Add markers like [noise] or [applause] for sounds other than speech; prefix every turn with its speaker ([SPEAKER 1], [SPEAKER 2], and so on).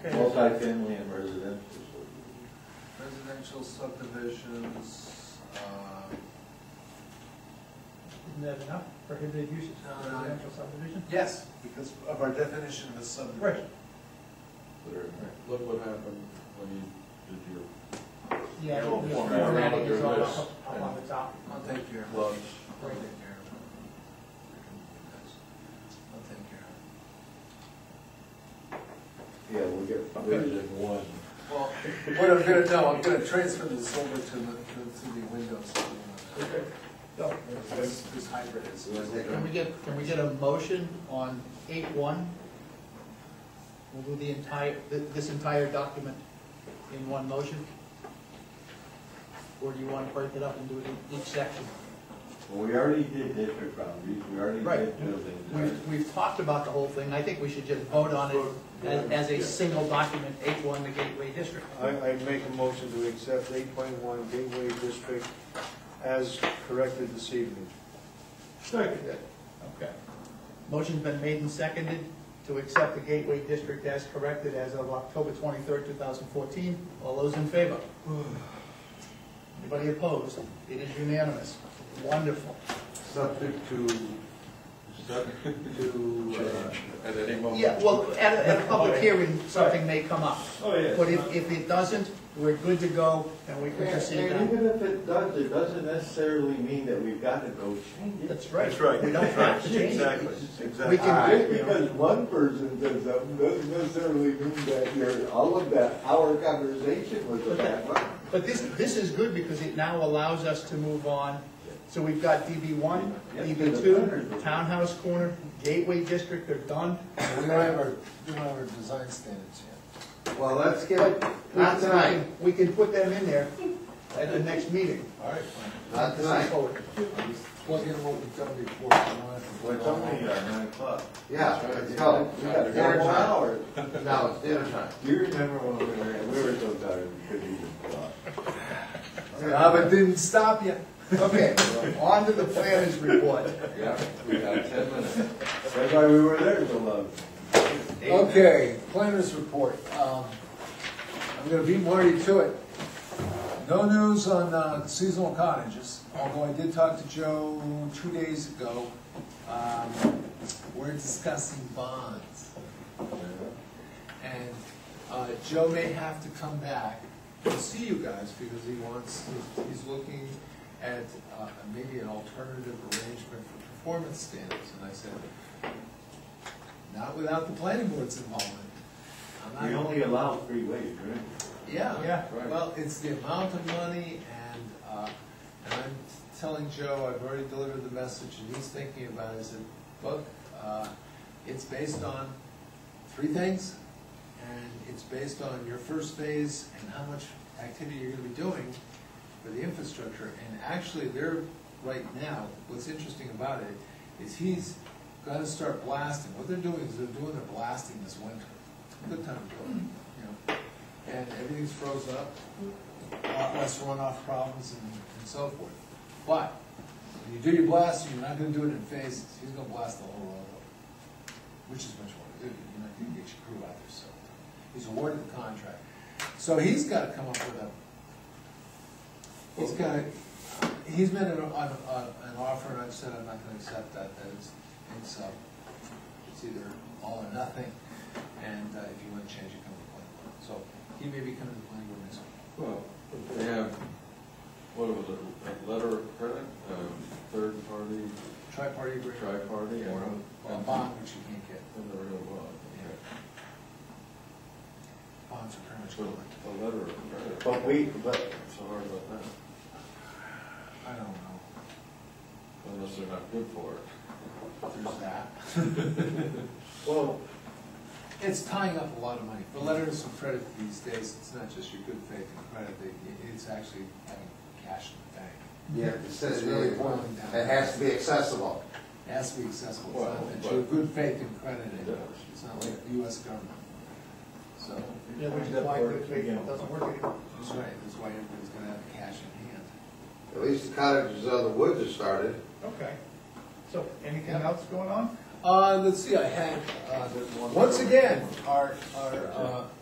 [SPEAKER 1] Okay.
[SPEAKER 2] Multifamily and residential.
[SPEAKER 3] Residential subdivisions, uh,
[SPEAKER 1] Isn't that enough? Prohibited uses,
[SPEAKER 3] No, no.
[SPEAKER 1] residential subdivision?
[SPEAKER 3] yes, because of our definition of a subdivision.
[SPEAKER 1] Right.
[SPEAKER 4] Look what happened when you did your
[SPEAKER 1] Yeah,
[SPEAKER 3] No,
[SPEAKER 1] the
[SPEAKER 3] for
[SPEAKER 1] formatting is all
[SPEAKER 4] this.
[SPEAKER 1] up, up on the top.
[SPEAKER 3] I'll take care of it.
[SPEAKER 4] lunch.
[SPEAKER 3] I'll take care of it. I can do this. I'll take care of
[SPEAKER 2] Yeah, we'll
[SPEAKER 4] I
[SPEAKER 2] get
[SPEAKER 4] bet you
[SPEAKER 2] rid
[SPEAKER 4] did one.
[SPEAKER 3] it. Well, [laughs] what I'm gonna, no, I'm gonna transfer this over to the, to to the Windows.
[SPEAKER 4] Okay.
[SPEAKER 3] This, this hybrid is.
[SPEAKER 5] Can we get, can we get a motion on eight one? We'll do the entire, thi- this entire document in one motion? Or do you want to break it up and do it in each section?
[SPEAKER 2] Well, we already did district boundaries, we already
[SPEAKER 5] Right.
[SPEAKER 2] did buildings.
[SPEAKER 5] We've, we've talked about the whole thing, I think we should just vote on it as, as a single document, eight one, the Gateway District.
[SPEAKER 6] I, I make a motion to accept eight point one Gateway District as corrected this evening.
[SPEAKER 5] Okay. Motion's been made and seconded to accept the Gateway District as corrected as of October twenty-third, two thousand fourteen. All those in favor? Anybody opposed? It is unanimous. Wonderful.
[SPEAKER 4] Subject to, subject to, uh, at any moment.
[SPEAKER 5] Yeah, well, at a, at a public hearing, something may come up.
[SPEAKER 2] Oh, yeah.
[SPEAKER 5] But if, if it doesn't, we're good to go, and we can proceed
[SPEAKER 2] And
[SPEAKER 5] now.
[SPEAKER 2] even if it does, it doesn't necessarily mean that we've got to go change it.
[SPEAKER 5] That's right.
[SPEAKER 7] That's right.
[SPEAKER 5] We don't [laughs] have to change it.
[SPEAKER 7] Exactly,
[SPEAKER 5] We
[SPEAKER 7] exactly.
[SPEAKER 5] can-
[SPEAKER 2] Just because one person does something doesn't necessarily mean that your, all of that, our conversation was about. that.
[SPEAKER 5] But this, this is good because it now allows us to move on. So we've got DB one, DB two, Townhouse Corner, Gateway District, they're done.
[SPEAKER 3] We don't have our, we don't have our design standards yet.
[SPEAKER 2] Well, let's get,
[SPEAKER 5] Not tonight, we can put them in there at the next meeting.
[SPEAKER 3] All right, fine.
[SPEAKER 2] not tonight,
[SPEAKER 3] Plug in what we've done before. We don't
[SPEAKER 7] Well,
[SPEAKER 3] have to-
[SPEAKER 7] it's only uh, nine o'clock.
[SPEAKER 8] Yeah, it's called,
[SPEAKER 2] we got four more hours.
[SPEAKER 8] no, it's dinner time.
[SPEAKER 2] Do you remember when we were, we were so tired, we couldn't even talk?
[SPEAKER 3] Ah, but didn't stop yet.
[SPEAKER 5] Okay, on to the planners report.
[SPEAKER 2] Yeah, we got ten minutes. That's why we were there so long.
[SPEAKER 3] Okay, planners report. Um, I'm gonna beat Marty to it. No news on uh, seasonal cottages, although I did talk to Joe two days ago. Um, We're discussing bonds. And uh, Joe may have to come back to see you guys because he wants, he's- he's looking at uh, maybe an alternative arrangement for performance standards. And I said, not without the planning board's involvement. I'm not
[SPEAKER 2] We only allow three ways, right?
[SPEAKER 3] yeah.
[SPEAKER 1] Yeah.
[SPEAKER 2] Right.
[SPEAKER 3] Well, it's the amount of money and, uh, and I'm telling Joe, I've already delivered the message and he's thinking about it, I said, look, uh, it's based on three things. And it's based on your first phase and how much activity you're gonna be doing for the infrastructure. And actually, they're, right now, what's interesting about it is he's gonna start blasting. What they're doing is they're doing their blasting this winter. Good time to do it, you know and everything's frozen up, a lot less runoff problems and and so forth. But, when you do your blasting, you're not gonna do it in phases, he's gonna blast the whole road up, which is much more, you're not gonna get your crew out there, so. He's awarded the contract, so he's gotta come up with a, he's gotta, he's made an, an, an offer, and I've said I'm not gonna accept that, that is, it's, uh, it's either all or nothing, and uh, if you want to change it, come to the planning board. So he may be coming to the planning board next week.
[SPEAKER 4] Well, they have, what was it, a letter of credit, um, third party,
[SPEAKER 3] Tri-party agreement.
[SPEAKER 4] tri-party, and.
[SPEAKER 3] Or a bond, which you can't get.
[SPEAKER 4] And the real bond, okay.
[SPEAKER 3] Bonds are pretty much
[SPEAKER 4] So,
[SPEAKER 3] gone.
[SPEAKER 4] a letter of credit.
[SPEAKER 2] But we, but
[SPEAKER 4] It's hard about that,
[SPEAKER 3] I don't know.
[SPEAKER 4] unless they're not good for it.
[SPEAKER 3] There's that.
[SPEAKER 2] Well,
[SPEAKER 3] It's tying up a lot of money. The letters of credit these days, it's not just your good faith and credit, it- it's actually having cash in the bank.
[SPEAKER 8] Yeah, it says,
[SPEAKER 3] It's really
[SPEAKER 8] it
[SPEAKER 3] boiling down.
[SPEAKER 8] has to be accessible.
[SPEAKER 3] It has to be accessible. It's
[SPEAKER 4] Well,
[SPEAKER 3] not that
[SPEAKER 4] but-
[SPEAKER 3] you're good faith and credit,
[SPEAKER 4] Yeah.
[SPEAKER 3] it. it's not like the US government. So.
[SPEAKER 5] Yeah, which is why it doesn't work anymore.
[SPEAKER 3] That's right, that's why everybody's gonna have cash in hand.
[SPEAKER 8] At least the cottages of the woods have started.
[SPEAKER 5] Okay. So, anything else going on?
[SPEAKER 3] Uh, let's see, I had, uh, once again, our, our, uh,